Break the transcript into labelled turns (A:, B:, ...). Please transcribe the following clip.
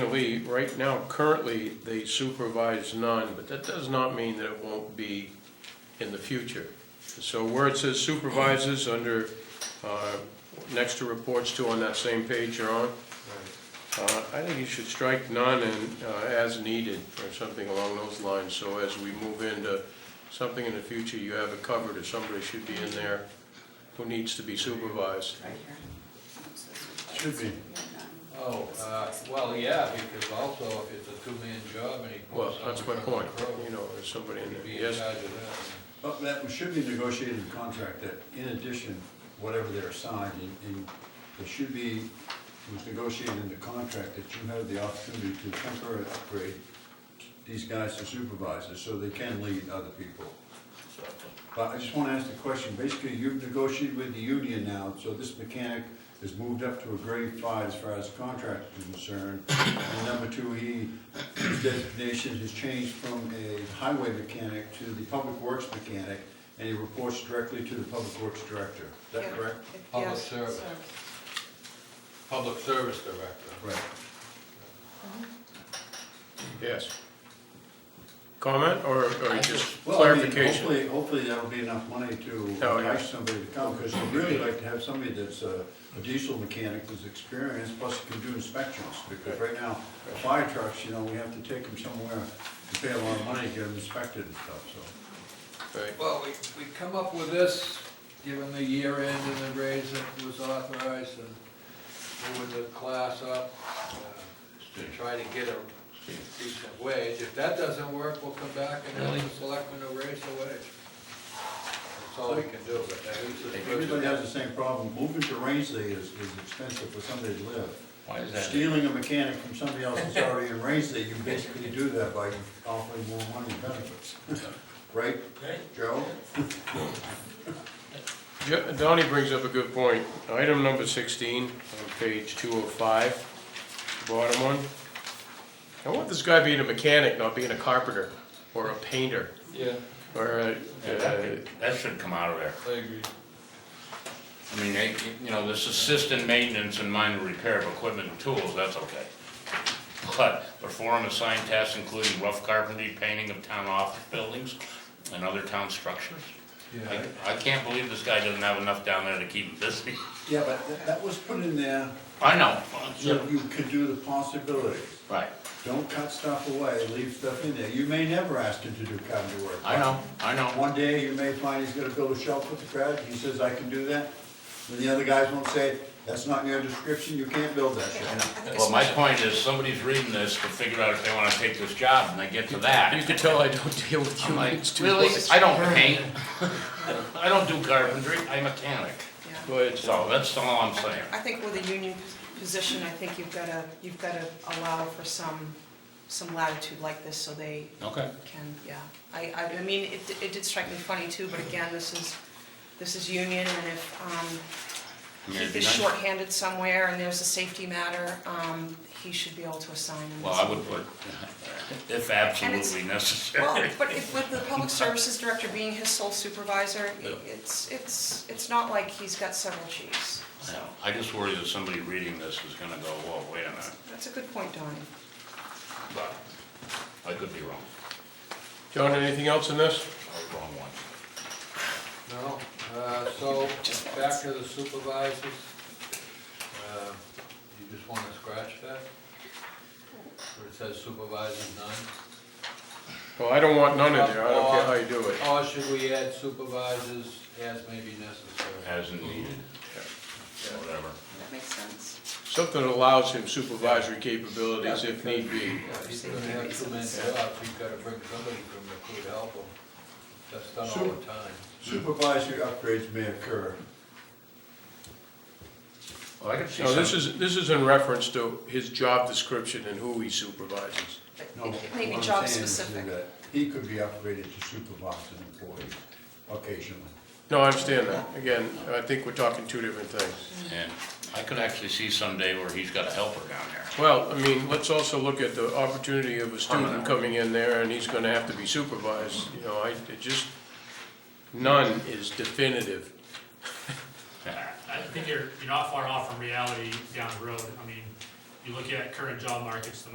A: Lee, right now, currently, they supervise none, but that does not mean that it won't be in the future. So where it says supervisors under, uh, next to reports to on that same page you're on, uh, I think you should strike none and uh, as needed, or something along those lines. So as we move into something in the future, you have it covered, if somebody should be in there who needs to be supervised.
B: Right here.
C: Should be.
D: Oh, uh, well, yeah, because also if it's a two-man job and he
A: Well,
D: pulls
A: that's my
D: someone from
A: point,
D: the crew,
A: you know, there's somebody in
D: he'd
A: there.
D: be in
A: Yes,
D: charge of
C: Well, Oh, that should be negotiated in contract, that in addition, whatever they're assigned, and- and it should be, was negotiated in the contract that you have the opportunity to temporarily upgrade these guys to supervisors, so they can lead other people. But I just want to ask the question, basically, you've negotiated with the union now, so this mechanic is moved up to a grade five as far as contract is concerned. And number two, he, his designation has changed from a highway mechanic to the public works mechanic, and he reports directly to the public works director. Is that correct?
D: Public
B: Yes,
D: service.
B: sir.
D: Public Service Director.
C: Right.
A: yes. Comment or or just
C: Well, I mean,
A: clarification?
C: Hopefully, hopefully that'll be enough money to
A: Oh, yeah.
C: entice somebody to come, because I'd really like to have somebody that's a a diesel mechanic who's experienced, plus can do inspections, because right now, fire trucks, you know, we have to take them somewhere and pay a lot of money to get them inspected and stuff, so.
A: Right.
D: Well, we, we come up with this, given the year end and the raise that was authorized and moving the class up, uh, to try to get a decent wage. If that doesn't work, we'll come back and have the selectmen to raise the wage. That's all we can do, but that is.
C: Everybody has the same problem, moving to Rangeley is, is expensive for somebody to live.
E: Why is that?
C: Stealing a mechanic from somebody else that's already in Rangeley, you basically do that by offering more money and benefits. Right, Joe?
A: Jo- Donnie brings up a good point. Item number 16 on page 205, bottom one. I want this guy being a mechanic, not being a carpenter or a painter
D: Yeah,
A: or uh, a...
E: Yeah, that could- That should come out of there.
D: I agree.
E: I mean, they, you know, this assistant maintenance and minor repair of equipment and tools, that's okay. But perform assigned tasks including rough carpentry, painting of town office buildings and other town structures. I, I can't believe this guy doesn't have enough down there to keep him busy.
C: Yeah, but that- that was put in there
E: I know.
C: So you could do the possibilities.
E: Right,
C: Don't cut stuff away, leave stuff in there. You may never ask him to do carpentry work.
E: I know, I know.
C: One day you may find he's gonna build a shelf with the crowd, he says, I can do that. And the other guys won't say, that's not in your description, you can't build that shelf.
E: Well, my point is, somebody's reading this to figure out if they wanna take this job and they get to that.
A: You can tell I don't deal with
E: I'm like,
A: humans too
E: really?
A: much.
E: I don't paint. I don't do carpentry, I'm a mechanic.
B: Yeah.
A: Go ahead.
E: So that's all I'm saying.
B: I think with a union position, I think you've got to, you've got to allow for some, some latitude like this so they
E: Okay.
B: can, yeah. I, I, I mean, it, it did strike me funny too, but again, this is, this is union and if, um, he is shorthanded somewhere and there's a safety matter, um, he should be able to assign him.
E: Well, I would put, if absolutely
B: Well,
E: necessary.
B: but if- with the public services director being his sole supervisor,
E: Yeah.
B: it's, it's, it's not like he's got several chiefs.
E: You know, I just worry that somebody reading this is gonna go, whoa, wait a minute,
B: That's a good point, Donnie.
E: but I could be wrong,
A: John, anything else in this?
E: I was wrong one.
D: No, uh, so, back to the supervisors. Uh, You just wanna scratch that? Where it says supervisors none?
A: Well, I don't want none in there. I don't care how you do it.
D: Or should we add supervisors as may be necessary?
E: As needed, whatever.
B: That makes sense.
A: Something that allows him supervisory capabilities if need be.
D: Yeah, He's gonna have two men jobs, he's gotta bring somebody from the crew to help him. That's done all the time.
C: Supervisory upgrades may occur.
E: Well, I could see
A: No, this
E: some,
A: is, this is in reference to his job description and who he supervises.
C: No,
B: Maybe
C: what I'm
B: job
C: saying is
B: specific.
C: that He could be upgraded to supervise an employee occasionally.
A: No, I understand that. Again, I think we're talking two different things.
E: and I could actually see someday where he's got a helper down there.
A: Well, I mean, let's also look at the opportunity of a student
E: Permanent.
A: coming in there and he's gonna have to be supervised, you know, I, it just, none is definitive.
F: I think you're, you're not far off from reality down the road. I mean, you look at current job markets, the